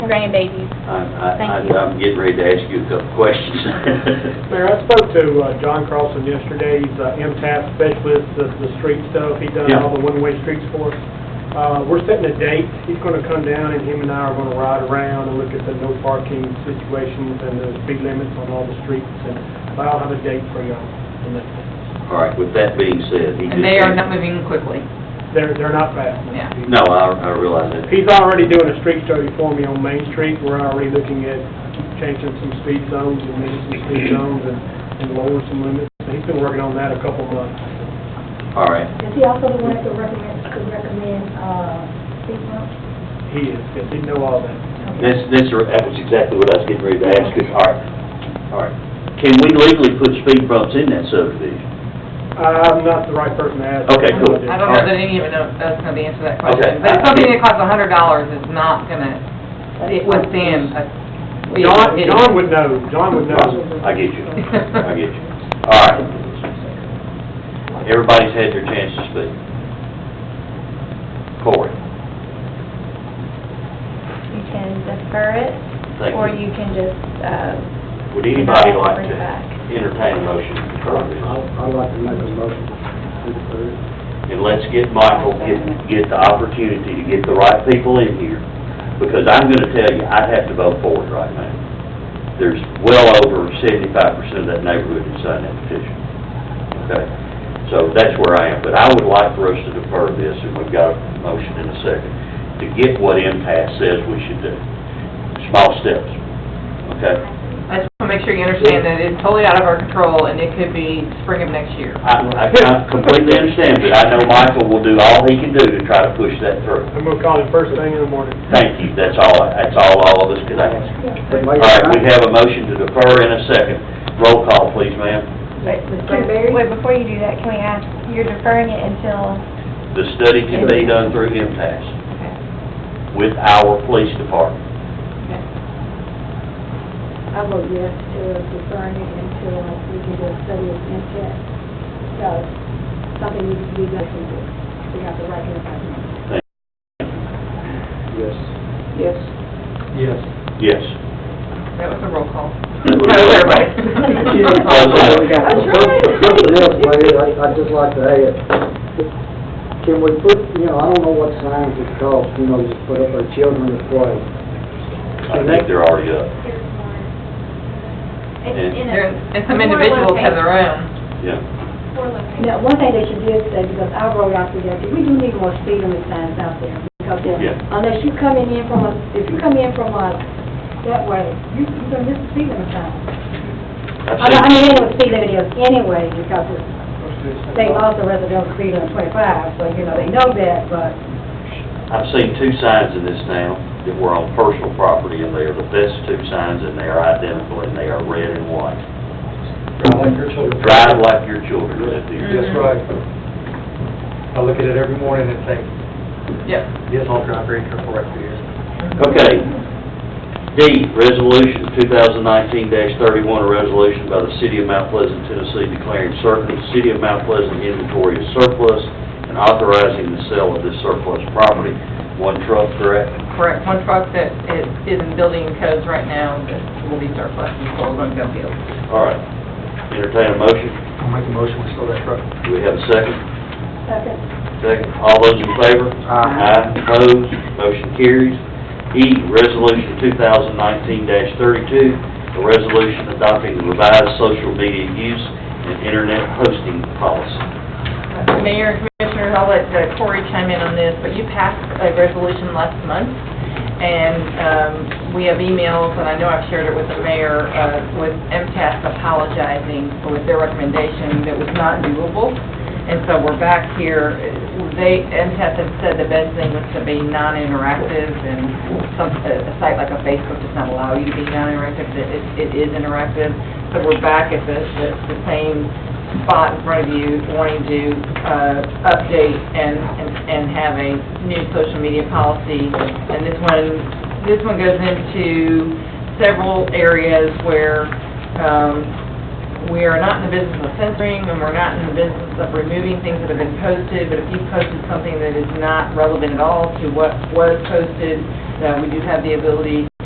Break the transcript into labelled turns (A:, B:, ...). A: grandbabies.
B: I'm, I-
A: Thank you.
B: I'm getting ready to ask you a couple questions.
C: Mayor, I spoke to uh, John Carlson yesterday, he's uh, MTS specialist, the, the street stuff, he does all the one-way streets for us. Uh, we're setting a date, he's gonna come down and him and I are gonna ride around and look at the no parking situations and the speed limits on all the streets, and I'll have a date for y'all. And that-
B: All right, with that being said, he just...
D: And they are not moving quickly.
C: They're, they're not fast. no.
D: Yeah.
B: No, I, I realize that.
C: He's already doing a street study for me on Main Street, we're already looking at changing some speed zones and maybe some speed zones and, and lowering some limits. So He's been working on that a couple months.
B: All right,
E: Is he also the one that recommends, could recommend, uh, speed bumps?
C: He is, yes, he know all that.
B: this, this, that was exactly what I was getting ready to ask you. All right, all right. Can we legally put speed bumps in that subdivision?
C: I'm not the right person to ask.
B: Okay, cool.
D: I don't know that any of us know the answer to that
B: Okay.
D: question. But something that costs a hundred dollars is not gonna, it withstand a...
C: John, John would know, John would know.
B: I get you, I get you. All right. Everybody's had their chance to speak. Corey,
A: You can defer it,
B: thank
A: or
B: you.
A: you can just, uh,
B: Would anybody like
A: bring
B: to
A: it back.
B: entertain a motion?
F: I'd like to make a motion to approve.
B: And let's get Michael, get, get the opportunity to get the right people in here, because I'm gonna tell you, I'd have to vote for it right now. There's well over seventy-five percent of that neighborhood that signed that petition. Okay? So that's where I am, but I would like for us to defer this, and we've got a motion in a second, to get what MTS says we should do. Small steps, okay?
D: I just wanna make sure you understand that it's totally out of our control, and it could be spring of next year.
B: I, I I completely understand, but I know Michael will do all he can do to try to push that through.
C: I'm gonna call him first thing in the morning.
B: Thank you, that's all, that's all all of us could ask. All right, we have a motion to defer in a second. Roll call, please, ma'am.
A: wait,
E: Mr. Barry?
A: wait, before you do that, can we ask, you're deferring it until,
B: The study can be done through MTS with our police department.
E: I vote yes to deferring it until we can do a study of intent. So, something needs to be done from this. We have the right to recommend.
F: Yes.
D: Yes.
C: Yes.
B: Yes.
D: That was a roll call.
B: That was a roll call.
D: Roll call.
F: Something else, Larry, I- I'd just like to add, can we put, you know, I don't know what signs it costs, you know, just put up our children to play.
B: I think they're already up.
D: There- And some individuals have their own.
B: Yeah.
E: Now, one thing they should do is say, because I wrote out today, that we do need more speed limit signs out there. Because if-
B: Yeah.
E: unless you coming in from, a- if you come in from us that way, you, you're gonna miss the speed limit sign. I mean, I
B: I've
E: mean,
B: seen,
E: it was speed limit is anyway, because it's- they also residential speed limit twenty-five, so, you know, they know that, but
B: I've seen two signs in this town that were on personal property in there, but that's two signs and they are identical and they are red and white.
G: like your children.
B: Drive like your children live here.
G: That's right. I look at it every morning and think,
D: Yep.
G: yes, I'll drive very careful right through here.
B: Okay. D, resolution 2019-31, a resolution by the City of Mount Pleasant, Tennessee declaring certain City of Mount Pleasant inventory as surplus and authorizing the sale of this surplus property. One truck, correct?
D: Correct, one truck that is is in building codes right now that will be surplus and sold on Gumfield.
B: All right. Entertain a motion.
G: I'll make a motion, we sell that truck.
B: Do we have a second?
E: Second.
B: Second. All those in favor? Aye. Opposed? Motion carries. E, Resolution 2019-32, a resolution adopting the revised social media use and internet hosting policy.
D: Mayor and Commissioners, I'll let uh, Corey chime in on this, but you passed a resolution last month, and um, we have emails, and I know I've shared it with the mayor, uh, with MTS apologizing with their recommendation that was not doable. And so we're back here, they, MTS had said the best thing was to be non-interactive, and some, a a site like a Facebook does not allow you to be non-interactive, It- it it is interactive. So we're back at the, the- the same spot in front of you wanting to uh, update and, and- and have a new social media policy. And this one, this one goes into several areas where um, we are not in the business of censoring and we're not in the business of removing things that have been posted, but if you posted something that is not relevant at all to what was posted, uh, we do have the ability